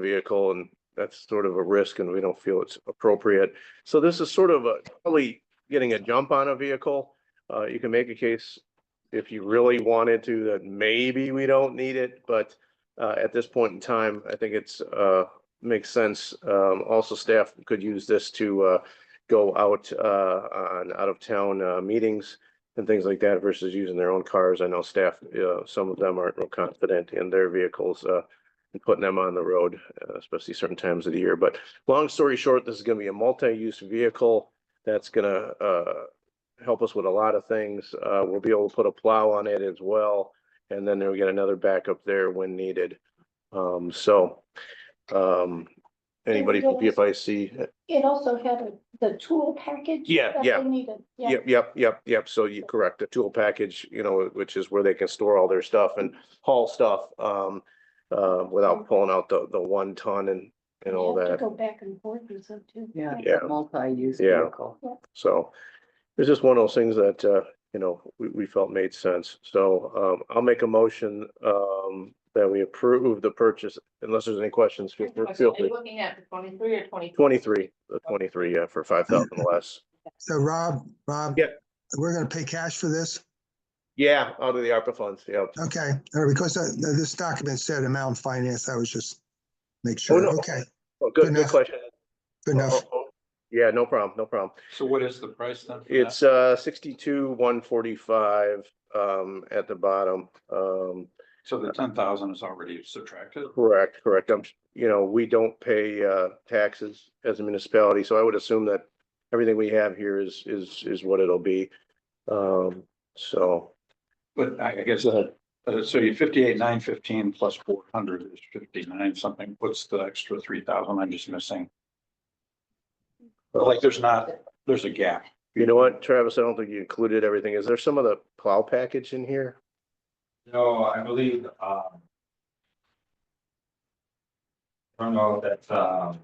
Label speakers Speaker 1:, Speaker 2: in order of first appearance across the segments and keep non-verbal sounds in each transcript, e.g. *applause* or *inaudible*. Speaker 1: vehicle and that's sort of a risk and we don't feel it's appropriate. So this is sort of a, probably getting a jump on a vehicle. Uh, you can make a case if you really wanted to, that maybe we don't need it, but uh, at this point in time, I think it's, uh, makes sense. Um, also staff could use this to, uh, go out, uh, on out of town, uh, meetings and things like that versus using their own cars. I know staff, uh, some of them aren't real confident in their vehicles, uh, and putting them on the road, uh, especially certain times of the year. But long story short, this is gonna be a multi-use vehicle that's gonna, uh, help us with a lot of things. Uh, we'll be able to put a plow on it as well. And then we get another backup there when needed. Um, so, um, anybody from PFIC,
Speaker 2: It also had a- the tool package.
Speaker 1: Yeah,
Speaker 2: that
Speaker 1: yeah.
Speaker 2: they Needed, yeah.
Speaker 1: Yep, yep, yep, yep. So you correct the tool package, you know, which is where they can store all their stuff and haul stuff um uh without pulling out the the one ton and and all
Speaker 2: You have to
Speaker 1: that.
Speaker 2: Go back and forth and so too.
Speaker 3: Yeah,
Speaker 1: Yeah.
Speaker 3: it's a multi-use
Speaker 1: Yeah.
Speaker 3: vehicle.
Speaker 1: So it's just one of those things that uh, you know, we we felt made sense. So um I'll make a motion um that we approve the purchase unless there's any questions. Feel
Speaker 4: Are
Speaker 1: feel
Speaker 4: you
Speaker 1: free.
Speaker 4: looking at the twenty-three or twenty-four?
Speaker 1: Twenty-three, the twenty-three, yeah, for five thousand less.
Speaker 5: So Rob, Rob.
Speaker 1: Yeah.
Speaker 5: We're gonna pay cash for this?
Speaker 1: Yeah, out of the ARPA funds, yeah.
Speaker 5: Okay, All right, because uh, this document said amount finance, I was just make
Speaker 1: no.
Speaker 5: sure, okay,
Speaker 1: Oh, Good,
Speaker 5: Good
Speaker 1: good
Speaker 5: enough.
Speaker 1: question.
Speaker 5: good enough.
Speaker 1: Oh, oh, oh. Yeah, no problem, no problem.
Speaker 6: So what is the price then? for that?
Speaker 1: It's uh sixty-two, one forty-five um at the bottom. Um,
Speaker 6: So the ten thousand is already subtracted?
Speaker 1: correct, correct. I'm, you know, we don't pay uh taxes as a municipality, so I would assume that everything we have here is is is what it'll be. Um, so,
Speaker 6: But I, I guess, uh, so you fifty-eight, nine fifteen plus four hundred is fifty-nine something. What's the extra three thousand I'm just missing? But Like, there's not, there's a gap.
Speaker 1: you know what, Travis, I don't think you included everything. Is there some of the plow package in here?
Speaker 7: No, I believe, um. I don't know if that's, um.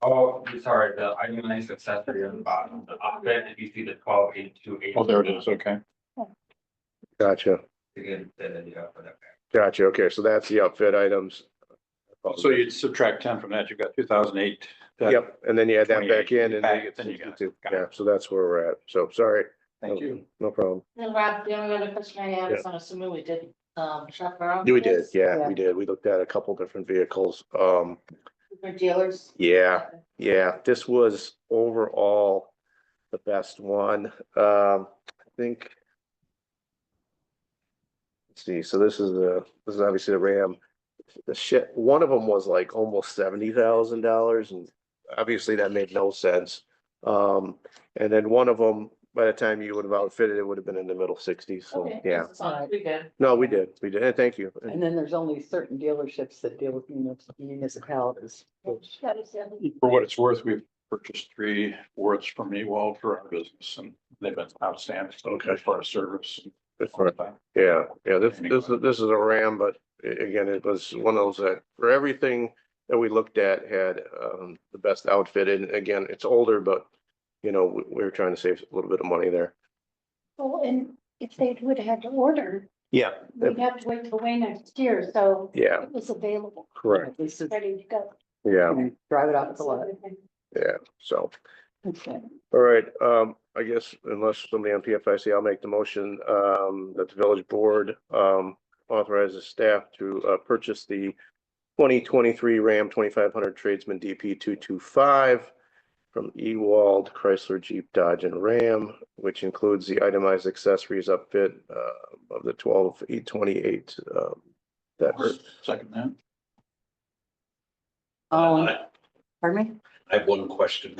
Speaker 7: Oh, I'm sorry, the itemized accessory on the bottom, the up there, if you see the twelve eight two eight.
Speaker 6: Oh, there it is. Okay.
Speaker 1: Gotcha,
Speaker 7: Again, then, uh, yeah, whatever.
Speaker 1: gotcha. Okay, so that's the outfit items.
Speaker 6: So you'd subtract ten from that, you've got two thousand eight.
Speaker 1: Yep, and then you add that back
Speaker 6: 28,
Speaker 1: in and then you get
Speaker 6: back, then you got it.
Speaker 1: 62.
Speaker 6: Got it.
Speaker 1: Yeah, so that's where we're at. So sorry.
Speaker 6: Thank you.
Speaker 1: No problem.
Speaker 4: Then Rob, the only other question I have is I'm assuming we did, um, shop around.
Speaker 1: Yeah, We
Speaker 4: for
Speaker 1: did,
Speaker 4: this
Speaker 1: yeah,
Speaker 3: Yeah.
Speaker 1: we did. We looked at a couple different vehicles. Um,
Speaker 4: For dealers.
Speaker 1: yeah, yeah, this was overall the best one. Um, I think. Let's see, so this is the, this is obviously the Ram. The shit, one of them was like almost seventy thousand dollars and obviously that made no sense. Um, and then one of them, by the time you would have outfitted, it would have been in the middle sixties, so,
Speaker 4: Okay,
Speaker 1: yeah.
Speaker 4: Sounds pretty good.
Speaker 1: No, we did, we did, and thank you.
Speaker 3: And then there's only certain dealerships that deal with munis- municipalities.
Speaker 2: That was the other-
Speaker 6: For what it's worth, we've purchased three Wards from Ewald for our business and they've been outstanding.
Speaker 1: Okay.
Speaker 6: For our service.
Speaker 1: Good for it. Yeah, yeah, this, this,
Speaker 6: Anyway.
Speaker 1: is- this is a Ram, but a- again, it was one of those that, for everything that we looked at, had, um, the best outfit, and again, it's older, but, you know, we, we were trying to save a little bit of money there.
Speaker 2: Well, and if they would have had to order,
Speaker 1: Yeah.
Speaker 2: we'd have to wait till way next year, so
Speaker 1: Yeah,
Speaker 2: it was available,
Speaker 1: correct,
Speaker 3: This is,
Speaker 2: ready to go.
Speaker 1: yeah,
Speaker 3: drive it off the lot.
Speaker 1: yeah, so,
Speaker 3: Okay.
Speaker 1: all right, um, I guess unless somebody on PFIC, I'll make the motion, um, that the village board, um, authorizes staff to, uh, purchase the twenty twenty-three Ram twenty-five hundred tradesman DP two-two-five from Ewald Chrysler Jeep Dodge and Ram, which includes the itemized accessories upfit, uh, of the twelve eight twenty-eight, um, that hurt.
Speaker 6: Second that.
Speaker 3: *laughs* Oh,
Speaker 8: I
Speaker 3: pardon me?
Speaker 8: I have one question.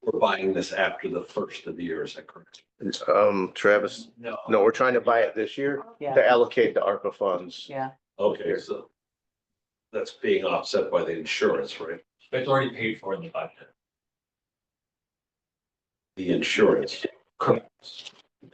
Speaker 8: We're buying this after the first of the year, is that correct?
Speaker 1: Um, Travis, no, we're trying to buy it this year
Speaker 3: Yeah,
Speaker 1: to allocate the ARPA funds.
Speaker 3: yeah.
Speaker 8: Okay, so that's being offset by the insurance, right?
Speaker 7: It's already paid for in the budget.
Speaker 8: The insurance.
Speaker 7: Correct.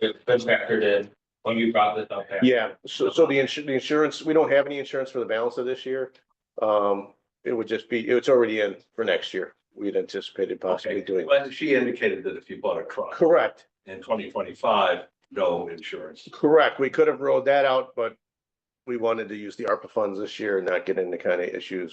Speaker 7: It's been factored in when you brought this up. there.
Speaker 1: Yeah, so, so the insurance, the insurance, we don't have any insurance for the balance of this year. Um, it would just be, it's already in for next year. We'd anticipated possibly
Speaker 8: Okay,
Speaker 1: doing.
Speaker 8: well, she indicated that if you bought a truck
Speaker 1: Correct,
Speaker 8: in twenty twenty-five, no insurance.
Speaker 1: correct. We could have rolled that out, but we wanted to use the ARPA funds this year and not get into kind of issues